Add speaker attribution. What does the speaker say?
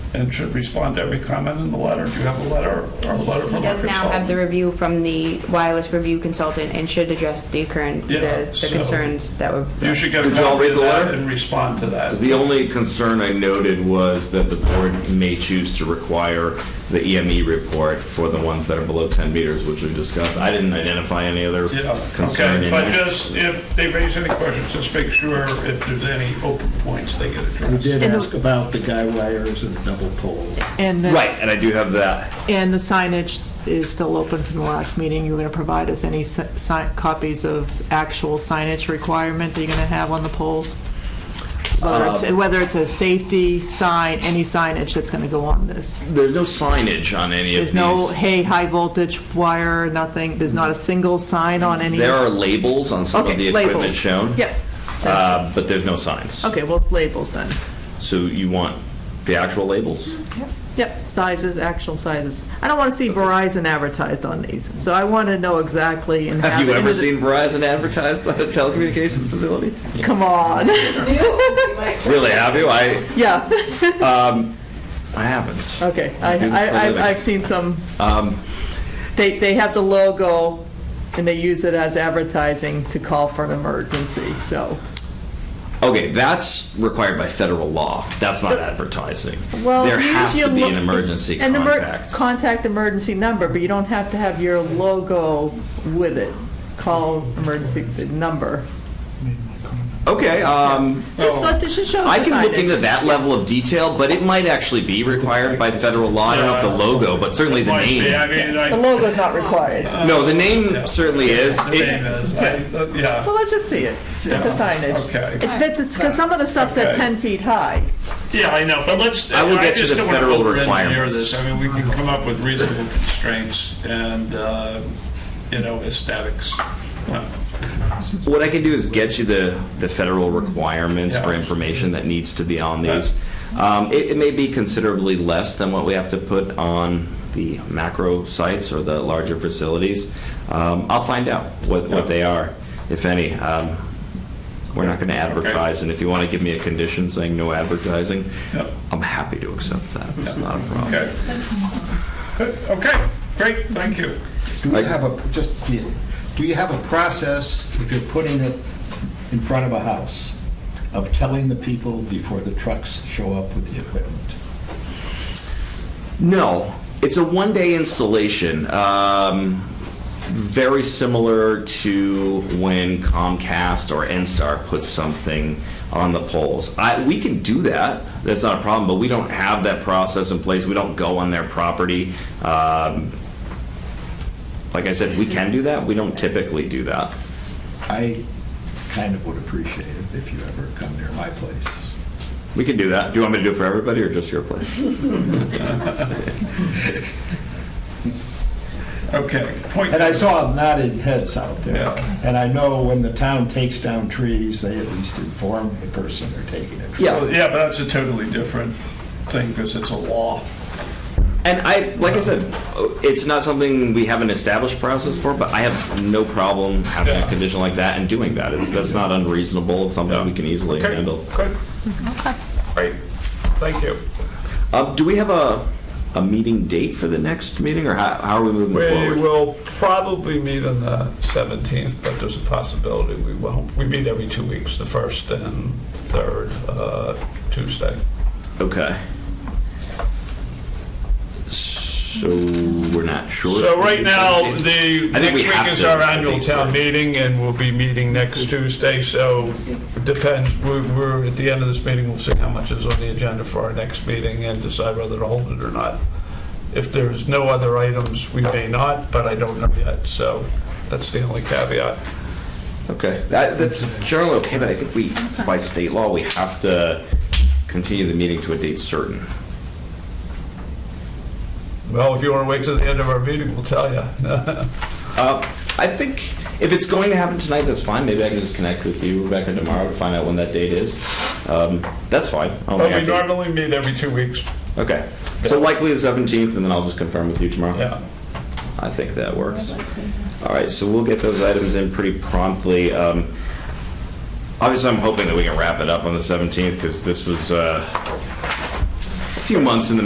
Speaker 1: and should respond to every comment in the letter. Do you have a letter or a letter
Speaker 2: He
Speaker 1: from our
Speaker 2: does now have the
Speaker 1: consultant?
Speaker 2: review from the wireless review consultant and should address the current, the
Speaker 1: Yeah,
Speaker 2: the
Speaker 1: so-
Speaker 2: concerns that were.
Speaker 1: You should get a
Speaker 3: Did y'all
Speaker 1: copy
Speaker 3: read
Speaker 1: of
Speaker 3: the
Speaker 1: that
Speaker 3: letter?
Speaker 1: and respond to that.
Speaker 3: The only concern I noted was that the board may choose to require the EME report for the ones that are below 10 meters, which we discussed. I didn't identify any other
Speaker 1: Yeah,
Speaker 3: concern
Speaker 1: okay,
Speaker 3: in
Speaker 1: but
Speaker 3: there.
Speaker 1: just if they raise any questions, just make sure if there's any open points, they get
Speaker 4: We
Speaker 1: addressed.
Speaker 4: did
Speaker 5: And the-
Speaker 4: ask about the guy wires and double poles.
Speaker 5: And the-
Speaker 3: Right, and I do have that.
Speaker 5: And the signage is still open from the last meeting. You're going to provide us any si- si- copies of actual signage requirement that you're going to have on the poles? Whether
Speaker 3: Um,
Speaker 5: it's, whether it's a safety sign, any signage that's going to go on this.
Speaker 3: There's no signage on any of
Speaker 5: There's no,
Speaker 3: these.
Speaker 5: hey, high voltage wire, nothing, there's not a single sign on any.
Speaker 3: There are labels on some of the
Speaker 5: Okay, labels.
Speaker 3: equipment shown.
Speaker 5: Yep.
Speaker 3: uh, But there's no signs.
Speaker 5: Okay, well, it's labels then.
Speaker 3: So you want the actual labels?
Speaker 5: Yep, sizes, actual sizes. I don't want to see Verizon advertised on these, so I want to know exactly and have.
Speaker 3: Have you
Speaker 5: it in
Speaker 3: ever
Speaker 5: the-
Speaker 3: seen Verizon advertised on a telecommunications facility?
Speaker 5: Come on,
Speaker 3: Really, have you? I,
Speaker 5: yeah.
Speaker 3: I haven't.
Speaker 5: Okay, I,
Speaker 3: do this for a
Speaker 5: I, I've-
Speaker 3: living. Um,
Speaker 5: I've seen some, they, they have the logo, and they use it as advertising to call for an emergency, so.
Speaker 3: Okay, that's required by federal law. That's not advertising.
Speaker 5: Well,
Speaker 3: there
Speaker 5: you
Speaker 3: has
Speaker 5: use your
Speaker 3: to be an
Speaker 5: lo-
Speaker 3: emergency
Speaker 5: an emer-
Speaker 3: contact.
Speaker 5: Contact emergency number, but you don't have to have your logo with it. Call emergency number.
Speaker 3: okay, um,
Speaker 5: Just let, just show
Speaker 3: I
Speaker 5: the
Speaker 3: can look
Speaker 5: signage.
Speaker 3: into that level of detail, but it might actually be required by federal law. I don't know if the logo, but certainly the
Speaker 1: Might be, I
Speaker 3: name.
Speaker 1: mean,
Speaker 5: The
Speaker 1: I,
Speaker 5: logo's not required.
Speaker 3: No, the name certainly is.
Speaker 1: the
Speaker 3: It-
Speaker 1: name is, I, uh, yeah,
Speaker 5: Well, let's just see it, the
Speaker 1: Yeah,
Speaker 5: signage.
Speaker 1: okay.
Speaker 5: It's, it's, because some of the stuff's at
Speaker 1: Okay.
Speaker 5: 10 feet high.
Speaker 1: yeah, I know, but let's.
Speaker 3: I will get you
Speaker 1: just
Speaker 3: the
Speaker 1: don't wanna
Speaker 3: federal
Speaker 1: over-engineer
Speaker 3: requirements.
Speaker 1: this. I mean, we can come up with reasonable constraints and, uh, you know, aesthetics. Uh,
Speaker 3: What I can do is get you the, the federal requirements for
Speaker 1: Yeah.
Speaker 3: information that needs to be on these. Um, it, it may be considerably less than what we have to put on the macro sites or the larger facilities. Um, I'll find out what, what they are, if any. Um, we're not going to advertise, and if you want to give me a condition saying no advertising,
Speaker 1: Yeah.
Speaker 3: I'm happy to accept that. It's not a problem.
Speaker 1: Okay. Good, Okay, great, thank you.
Speaker 4: Do you have a, just, yeah, do you have a process, if you're putting it in front of a house, of telling the people before the trucks show up with the equipment?
Speaker 3: No, it's a one-day installation. Um, very similar to when Comcast or NSTAR puts something on the poles. I, we can do that. That's not a problem. But we don't have that process in place. We don't go on their property. Um, like I said, we can do that. We don't typically do that.
Speaker 4: I kind of would appreciate it if you ever come near my place.
Speaker 3: We can do that. Do you want me to do it for everybody or just your place?
Speaker 1: Okay, point.
Speaker 4: And I saw nodded heads out there.
Speaker 1: Yeah.
Speaker 4: And I know when the town takes down trees, they at least inform the person they're taking a tree.
Speaker 3: Yeah.
Speaker 1: Yeah, but that's a totally different thing because it's a law.
Speaker 3: And I, like I said, it's not something we have an established process for, but I have no problem having
Speaker 1: Yeah.
Speaker 3: a condition like that and doing that. It's, that's not unreasonable. It's something we can easily
Speaker 1: Okay,
Speaker 3: handle.
Speaker 1: Good. Great, thank you.
Speaker 3: Um, do we have a, a meeting date for the next meeting, or how, how are we moving
Speaker 1: We
Speaker 3: forward?
Speaker 1: will probably meet on the 17th, but there's a possibility we won't. We meet every two weeks, the first and third uh, Tuesday.
Speaker 3: Okay. So we're not sure.
Speaker 1: So right now, the, next
Speaker 3: I think we have
Speaker 1: week is
Speaker 3: to,
Speaker 1: our
Speaker 3: I
Speaker 1: annual
Speaker 3: think so.
Speaker 1: town meeting, and we'll be meeting next Tuesday, so it depends. We're- We're, at the end of this meeting, we'll see how much is on the agenda for our next meeting and decide whether to hold it or not. If there's no other items, we may not, but I don't know yet, so that's the only caveat.
Speaker 3: Okay, that, that's generally okay, but I think we, by state law, we have to continue the meeting to a date certain.
Speaker 1: Well, if you want to wait till the end of our meeting, we'll tell you.
Speaker 3: Uh, I think if it's going to happen tonight, that's fine. Maybe I can just connect with you, Rebecca, tomorrow to find out when that date is. Um, that's fine. I don't
Speaker 1: But
Speaker 3: think I
Speaker 1: we
Speaker 3: have to-
Speaker 1: normally meet every two weeks.
Speaker 3: Okay. So likely the 17th, and then I'll just confirm with you tomorrow.
Speaker 1: Yeah.
Speaker 3: I think that works. All right, so we'll get those items in pretty promptly. Um, Obviously, I'm hoping that we can wrap it up on the 17th, because this was uh, a few months in the